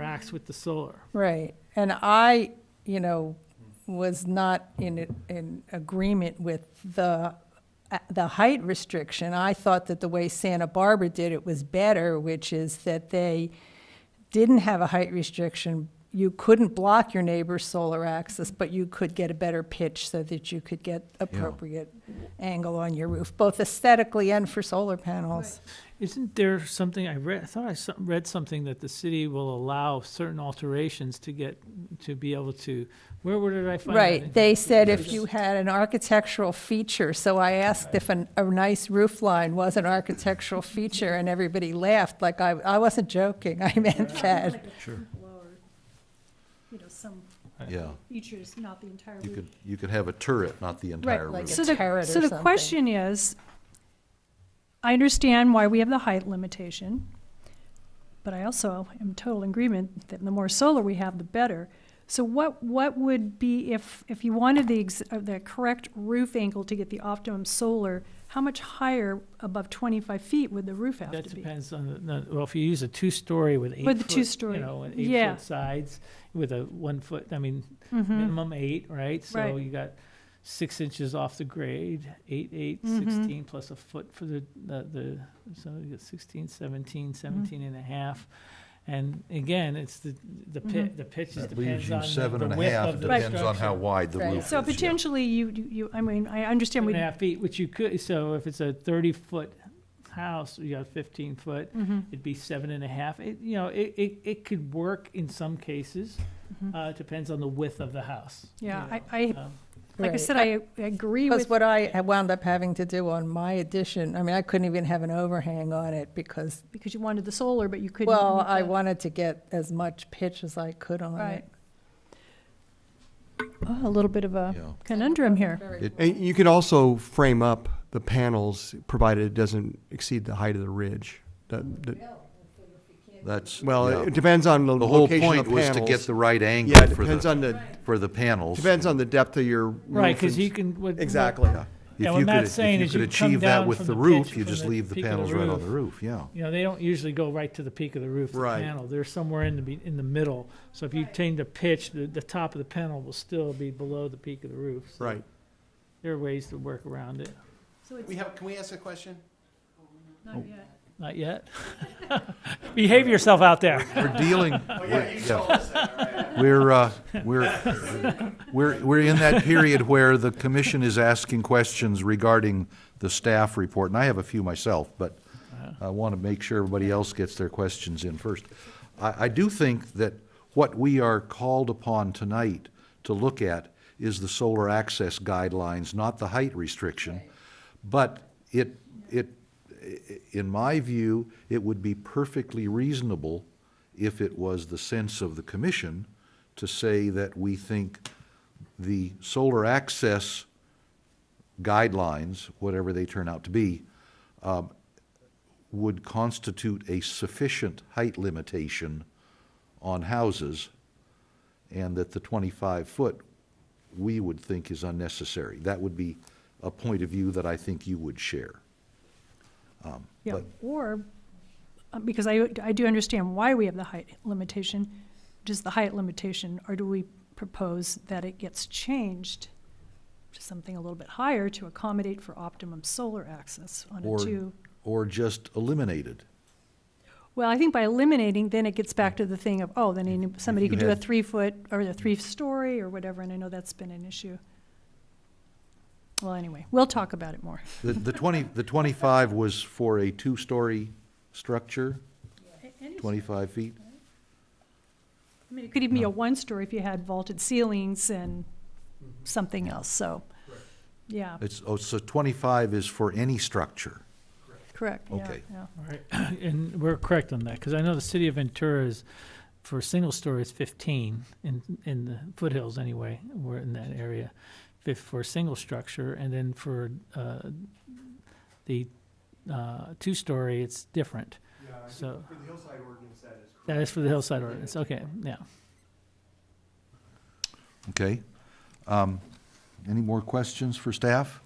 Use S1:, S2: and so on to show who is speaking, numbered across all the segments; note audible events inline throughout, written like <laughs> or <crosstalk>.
S1: tax with the solar.
S2: Right, and I, you know, was not in, in agreement with the, uh, the height restriction. I thought that the way Santa Barbara did it was better, which is that they didn't have a height restriction. You couldn't block your neighbor's solar access, but you could get a better pitch so that you could get appropriate angle on your roof, both aesthetically and for solar panels.
S1: Isn't there something, I read, I thought I some- read something that the city will allow certain alterations to get, to be able to, where, where did I find that?
S2: Right, they said if you had an architectural feature, so I asked if an, a nice roof line was an architectural feature, and everybody laughed, like I, I wasn't joking, <laughs> I meant that.
S3: Sure.
S4: Lower, you know, some
S3: Yeah,
S4: features, not the entire
S3: you
S4: roof.
S3: could, you could have a turret, not the entire
S2: like
S3: roof.
S2: a
S4: So the-
S2: turret or
S4: So the
S2: something.
S4: question is, I understand why we have the height limitation, but I also am total agreement that the more solar we have, the better. So what, what would be, if, if you wanted the, ex- uh, the correct roof angle to get the optimum solar, how much higher above twenty-five feet would the roof have
S1: That
S4: to be?
S1: depends on, the- no, well, if you use a two-story with eight
S4: With the
S1: foot,
S4: two-story,
S1: You know, and
S4: yeah.
S1: eight-foot sides, with a one-foot, I mean, minimum eight, right? So
S4: Mm-hmm. Right.
S1: you got six inches off the grade, eight, eight,
S4: Mhm.
S1: sixteen, plus a foot for the, the, the, so you got sixteen,
S4: Mm-hmm.
S1: seventeen, seventeen and a half. And again, it's the, the
S4: Mhm.
S1: pit, the pitch is
S3: That leaves
S1: depends on
S3: you seven
S1: the-
S3: and
S1: the
S3: a
S1: width
S3: half,
S1: of
S3: it
S1: the
S3: depends on how
S1: structure.
S3: wide the
S2: Right.
S3: roof is.
S4: So
S3: yeah.
S4: potentially, you, you- you, I mean, I understand
S1: Two
S4: we.
S1: and a half feet, which you could, so if it's a thirty-foot house, you got fifteen foot,
S4: Mhm.
S1: it'd be seven and a half. It, you know, it, it, it could work in some cases.
S4: mm-hmm.
S1: Uh, it depends on the width of the house. you
S4: Yeah, I,
S1: know.
S4: I,
S1: Um,
S4: like I
S2: Right.
S4: said, I I agree with.
S2: Because what I wound up having to do on my addition, I mean, I couldn't even have an overhang on it because,
S4: because you wanted the solar, but you couldn't.
S2: well,
S4: meet
S2: I
S4: the-
S2: wanted to get as much pitch as I could on
S4: Right.
S2: it.
S4: Oh, A little bit of a
S3: Yeah.
S4: conundrum here.
S5: And you could also frame up the panels, provided it doesn't exceed the height of the ridge. That- that-
S3: That's,
S5: well,
S3: yeah.
S5: it depends on the,
S3: The whole
S5: location of
S3: point
S5: the
S3: was to get
S5: panels.
S3: the right
S5: Yeah,
S3: angle
S5: it
S3: for
S5: depends
S3: the,
S5: on the,
S3: for the panels.
S5: depends on the depth of your roof.
S1: Right, because
S5: and-
S1: you can. what- what-
S5: Exactly, yeah.
S3: If
S1: Yeah,
S3: you
S1: what
S3: could-
S1: Matt's saying is
S3: If you
S1: you
S3: could
S1: come
S3: achieve
S1: down
S3: that with
S1: from
S3: the
S1: the
S3: roof,
S1: pitch,
S3: you
S1: from
S3: just
S1: the
S3: leave the
S1: peak of the
S3: panels right on
S1: roof.
S3: the roof, yeah.
S1: You know, they don't usually go right to the peak of the roof, the
S5: Right.
S1: panel. They're somewhere in the, be- in the middle. So if you change the pitch, the, the top of the panel will still be below the peak of the roof. So
S5: Right.
S1: There are ways to work around it.
S4: So it's
S6: We have, can we ask a question?
S4: not yet.
S1: Not yet. <laughs> Behave yourself out there.
S3: We're
S6: <laughs>
S3: dealing,
S6: Oh, yeah, you
S3: yeah.
S6: told us that, all right.
S3: we're, uh, we're, we're, we're in that period where the commission is asking questions regarding the staff report, and I have a few myself, but I want to make sure everybody else gets their questions in first. I, I do think that what we are called upon tonight to look at is the solar access guidelines, not the height restriction. But it, it, i- in my view, it would be perfectly reasonable if it was the sense of the commission to say that we think the solar access guidelines, whatever they turn out to be, um, would constitute a sufficient height limitation on houses, and that the twenty-five foot, we would think is unnecessary. That would be a point of view that I think you would share.
S4: Yeah,
S3: But-
S4: or, uh, because I, I do understand why we have the height limitation, just the height limitation, or do we propose that it gets changed to something a little bit higher to accommodate for optimum solar access on a
S3: Or-
S4: two?
S3: Or just eliminated.
S4: Well, I think by eliminating, then it gets back to the thing of, oh, then any- somebody
S3: you
S4: could do a
S3: had-
S4: three-foot or a three-story or whatever, and I know that's been an issue. Well, anyway, we'll talk about it more.
S3: The, the twenty, the twenty-five was for a two-story structure, twenty-five feet?
S4: I mean, it could even be a one-story if you had vaulted ceilings and
S3: Mm-hmm.
S4: something else, so, yeah,
S3: It's, oh, so twenty-five is for any structure.
S4: correct, yeah,
S3: Okay.
S4: yeah.
S1: All right, <clears throat> and we're correct on that, because I know the city of Ventura is, for a single story is fifteen, in, in the foothills anyway, we're in that area, fif- for a single structure, and then for, uh, the, uh, two-story, it's different. So,
S5: the hillside ordinance, that is
S1: that is for the hillside ordinance, okay, yeah.
S3: Okay. Um, Any more questions for staff?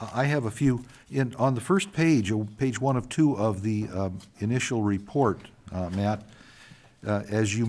S3: I I have a few. In, on the first page, uh, page one of two of the um, initial report, uh, Matt, uh, as you